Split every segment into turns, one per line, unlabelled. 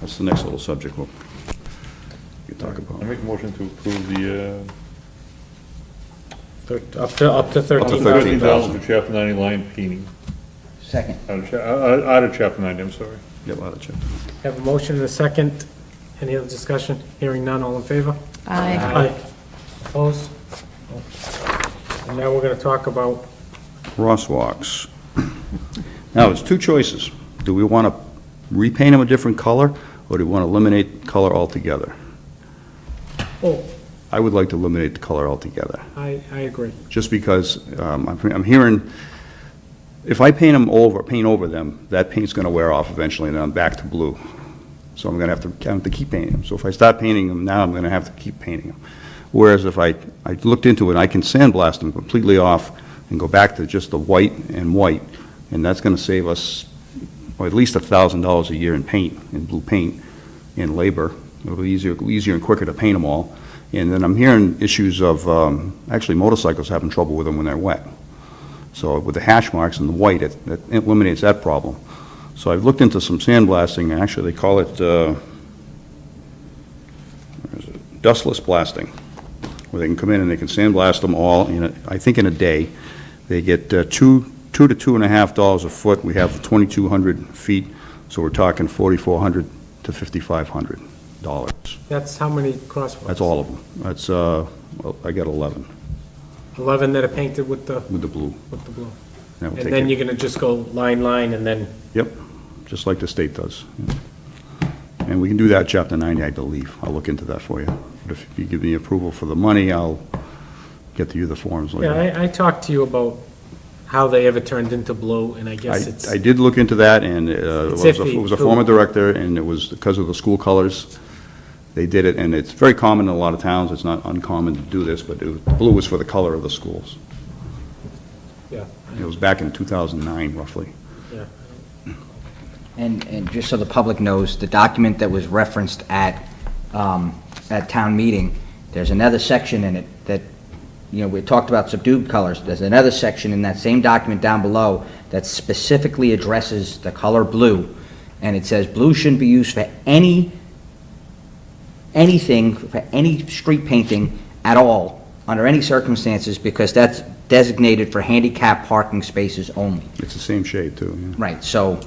What's Oh, the next little subject we'll we can talk
I
about?
make a motion to approve the,
Thir- Up to, up to
uh,
thirteen
thirteen
thousand.
dollars for chapter ninety line painting,
Second.
out of, cha- out out- out of chapter ninety, I'm sorry.
Yeah, we'll have to check.
Have a motion and a second. Any other discussion? Hearing none, all in favor?
Aye.
Opposed? And now we're gonna talk about,
crosswalks. Now, there's two choices. Do we want to repaint them a different color, or do we want to eliminate color altogether?
oh,
I would like to eliminate the color altogether,
I, I agree.
just because um, I'm I'm hearing, if I paint them over, paint over them, that paint's going to wear off eventually, and then I'm back to blue. So I'm going to have to, I have to keep painting them. So if I stop painting them now, I'm going to have to keep painting them. Whereas if I, I looked into it, I can sandblast them completely off and go back to just the white and white, and that's going to save us, well, at least a thousand dollars a year in paint, in blue paint, in labor. It'll be easier, easier and quicker to paint them all. And then I'm hearing issues of, um, actually motorcycles having trouble with them when they're wet. So with the hash marks and the white, it it eliminates that problem. So I've looked into some sandblasting, and actually, they call it, uh, where is it? dustless blasting, where they can come in and they can sandblast them all, in a- I think in a day. They get uh, two, two to two and a half dollars a foot, we have 2,200 feet, so we're talking 4,400 to 5,500 dollars.
That's how many crosswalks?
That's all of them. That's, uh, well, I got 11
Eleven that are painted with the,
with the blue.
with the blue.
That will
And
take
then
it.
you're gonna just go line, line, and then,
Yep, just like the state does. And we can do that chapter 90, I believe. I'll look into that for you. But if you give me approval for the money, I'll get to you the forms
yeah,
later.
I, I talked to you about how they ever turned into blue, and I guess
I,
it's,
I did look into that, and uh, it was
It's
a-
iffy,
it was a
who-
former director, and it was because of the school colors. They did it, and it's very common in a lot of towns. It's not uncommon to do this, but it was- blue was for the color of the schools.
yeah,
It was back in 2009 roughly.
yeah.
And, and just so the public knows, the document that was referenced at, um, at town meeting, there's another section in it that, you know, we talked about subdued colors. There's another section in that same document down below that specifically addresses the color blue. And it says, "Blue shouldn't be used for any anything, for any street painting at all, under any circumstances, because that's designated for handicap parking spaces only."
It's the same shade, too, yeah.
Right, so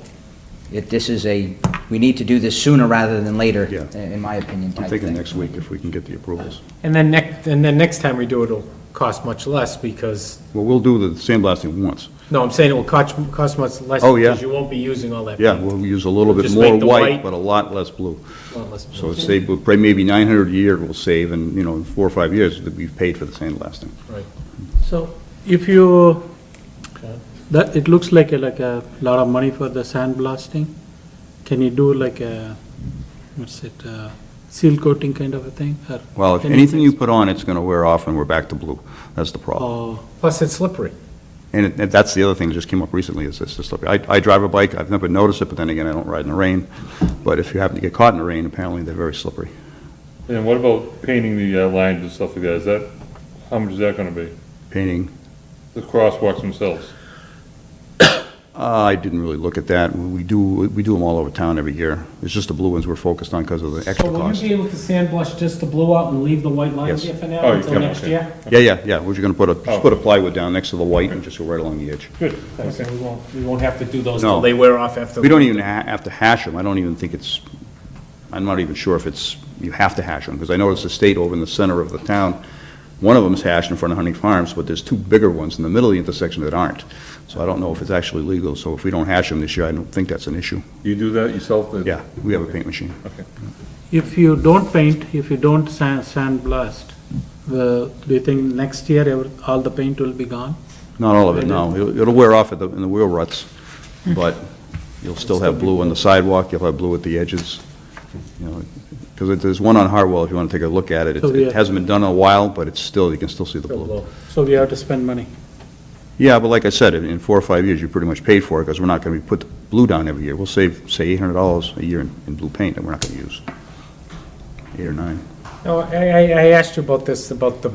if this is a, we need to do this sooner rather than later,
Yeah.
in my opinion,
I'm
type
thinking
thing.
next week if we can get the approvals.
And then next, and then next time we do it, it'll cost much less, because,
Well, we'll do the sandblasting once.
no, I'm saying it will cost, cost much less.
Oh, yeah.
Because you won't be using all that.
Yeah,
paint.
we'll use a little bit
Just
more
make the
white,
white-
but a lot less blue.
Well, let's-
So it's save, we'll pay maybe 900 a year we'll save, and, you know, in four or five years, that we've paid for the sandblasting.
Right.
So if you, that, it looks like, a- like a lot of money for the sandblasting. Can you do like a, what's it, uh, seal coating kind of a thing? or
Well, if anything you put on, it's going to wear off, and we're back to blue. That's the problem.
Oh,
Plus, it's slippery.
And it- and that's the other thing that just came up recently, is this, this, I I drive a bike, I've never noticed it, but then again, I don't ride in the rain. But if you happen to get caught in the rain, apparently they're very slippery.
And what about painting the uh, lines and stuff like that, is that, how much is that gonna be?
Painting,
The crosswalks themselves?
uh, I didn't really look at that. We do, we do them all over town every year. It's just the blue ones we're focused on because of the extra
So will
cost.
you be able to sandblush just the blue out and leave the white lines
Yes.
here for
Oh,
now
you
until
can,
next
okay.
year?
Yeah, yeah, yeah, we're just gonna put a, just
Oh.
put a plywood down next to the white and just go right along the edge.
Good,
So we won't, we won't have to do those till
No.
they wear off after.
We don't e- even ha- have to hash them, I don't even think it's, I'm not even sure if it's, you have to hash them, because I noticed the state over in the center of the town, one of them's hashed in front of Hunting Farms, but there's two bigger ones in the middle of the intersection that aren't. So I don't know if it's actually legal, so if we don't hash them this year, I don't think that's an issue.
You do that yourself? that-
Yeah, we have a paint machine.
if you don't paint, if you don't sand, sandblast, the, do you think next year ever, all the paint will be gone?
Not all of it, no, It'll- it'll wear off at the, in the wheel ruts, but you'll still have blue on the sidewalk, you'll have blue at the edges, you know, because there's one on Hartwell, if you want to take a look at it, It's-
So, yeah.
it hasn't been done in a while, but it's still, you can Oh, still see the blue.
So we have to spend money.
Yeah, but like I said, in in four or five years, you pretty much paid for it, because we're not going to be put the blue down every year. We'll save, say, eight hundred dollars a year in, in blue paint that we're not going to use. Eight or nine.
No, I, I, I asked you about this, about the,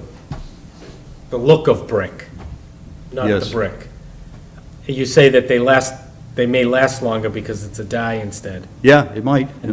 the look of brick, not the
Yes.
brick. You say that they last, they may last longer because it's a dye instead.
Yeah, it might.